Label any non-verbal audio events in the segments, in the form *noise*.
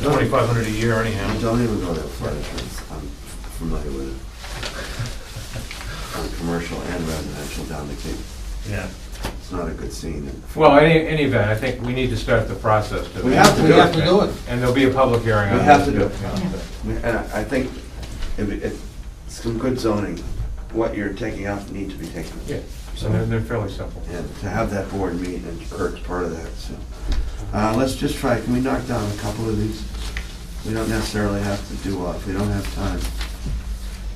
twenty-five hundred a year anyhow. I don't even go there for flood insurance, I'm familiar with it. On commercial and residential down the Cape, Yeah. it's not a good scene. Well, in any, any event, I think we need to start the process. to- We have to do it. do it. And there'll be a public hearing on We it. have to do it. Yeah. And I I think if, if some good zoning, what you're taking out need to be taken. Yeah, so they're, they're fairly simple. And to have that board meet and Kirk's part of that, so. Uh, let's just try, can we knock down a couple of these? We don't necessarily have to do, all- if we don't have time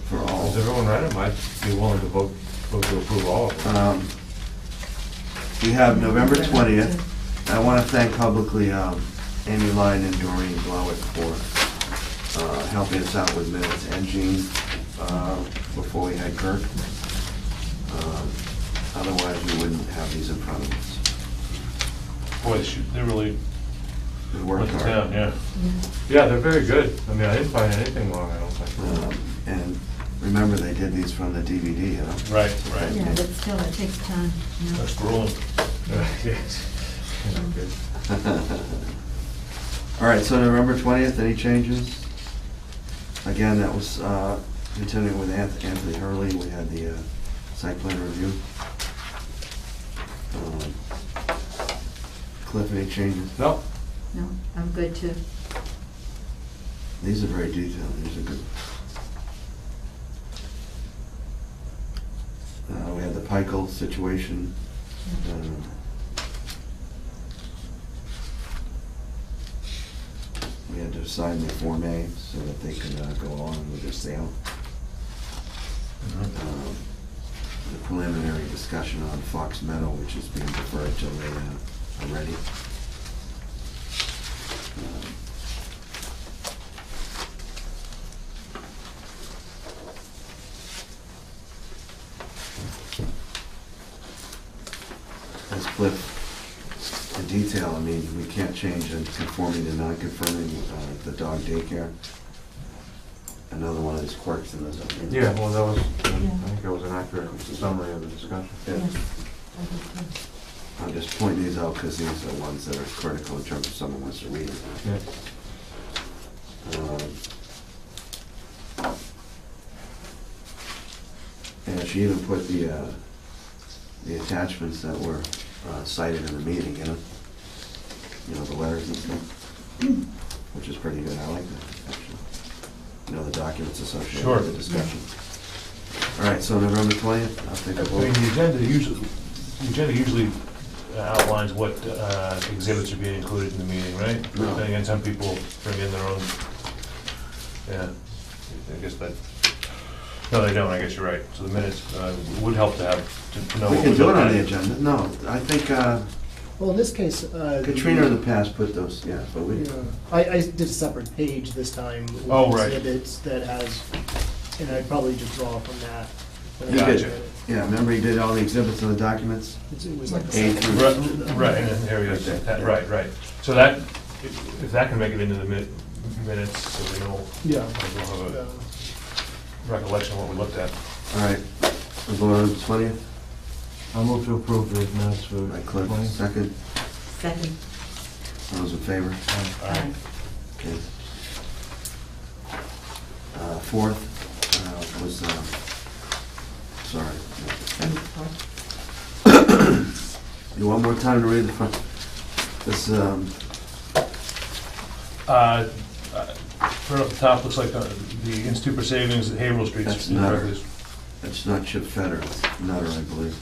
for all. Is everyone ready? Might be willing to vote, vote to approve all of them. Um, We have November 20th. I want to thank publicly um, Amy Lyon and Doreen Blowett for uh, helping us out with minutes, and Jean uh, before we had Kirk. Um, Otherwise, we wouldn't have these in front of us. Boy, they they really We worked hard. yeah. Yeah, they're very good. I mean, I didn't find anything wrong, I don't think. Um, And remember, they did these from the DVD, you know? Right, right. Yeah, but still, it takes time, you know. That's *laughs* grueling. Yes. Yeah, good. *laughs* All right, so November 20th, any changes? Again, that was uh, continuing with Anth- Anthony Hurley, we had the uh, site plan review. Um, Cliff, any changes? No, No, I'm good too. These are very detailed, these are good. Uh, We had the Pikel situation. um, We had to assign the Form A so that they could uh, go on with their sale. Mm-hmm. Um, The preliminary discussion on Fox Meadow, which is being deferred till they uh, are ready. Um, as Cliff, in detail, I mean, we can't change in conforming to non-conforming, uh, the dog daycare. Another one of these quirks in the zoning. yeah, well, that was, I think that was an accurate summary of the discussion. Yeah. Yes, I do, too. I'm just pointing these out because these are ones that are critical in terms of someone wants to read it. Yeah. Um, And she even put the, uh, the attachments that were uh, cited in the meeting, you know? You know, the letters and stuff, which is pretty good, I like that, actually. You know, the documents associated with the Sure. discussion. All right, so November twentieth, I'll take a I mean, vote. the agenda usually, the agenda usually outlines what uh, exhibits are being included in the meeting, right? No. Then again, some people bring in their own, yeah, I guess that, no, they don't, I guess you're right. So the minutes, uh, would help to have, to- to know. We what can we're do it on looking the at. agenda, no, I think uh, Well, in this case, uh. the- Katrina in the past put those, yeah, but we, Yeah. I, I did a separate page this time. with Oh, right. Exhibits that has, and I'd probably just draw from that. when I You did. read it. yeah, remember you did all the exhibits and the documents? It's- It was like. the A second through- page of Right, the- Right, and then there he is, Right That- there. right, right. So that, if if that can make it into the mi- minutes, so we know, Yeah. we'll have a So, recollection of what we looked at. All right, we vote on the twentieth, I'll move to approve the minutes for. by Cliff, second, Second. all those in favor? All right. Okay. Uh, Fourth uh, was, um, sorry, you want more time to read the front? This, um, Uh, uh, Right off the top, looks like uh, the Institute for Savings at Haverhill Street. That's Nutter. it's not Chip Fetter, it's Nutter, I believe.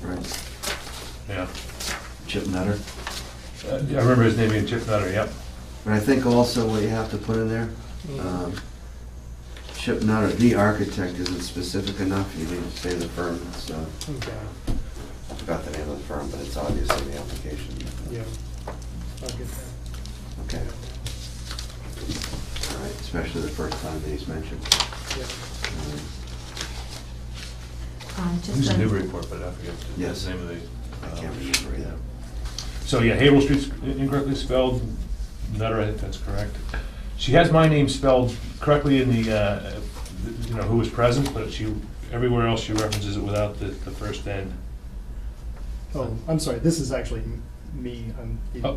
Right, Yeah. Chip Nutter. Uh, I remember his name being Chip Nutter, yep. But I think also what you have to put in there, um, Chip Nutter, the architect, isn't specific enough, you need to say the firm, so, Okay, I forgot the name of the firm, but it's obviously the application. yeah. I'll get that. Okay, all right, especially the first time that he's mentioned. Yeah. Um, Um, just He's a- in Newburyport, but I forget the- Yes. the name of the. I uh, can't remember either. So, yeah, Haverhill Street's incorrectly spelled, Nutter, I think that's correct. She has my name spelled correctly in the, uh, you know, who was present, but she, everywhere else she references it without the, the first N. Oh, I'm sorry, this is actually me, I'm the Oh,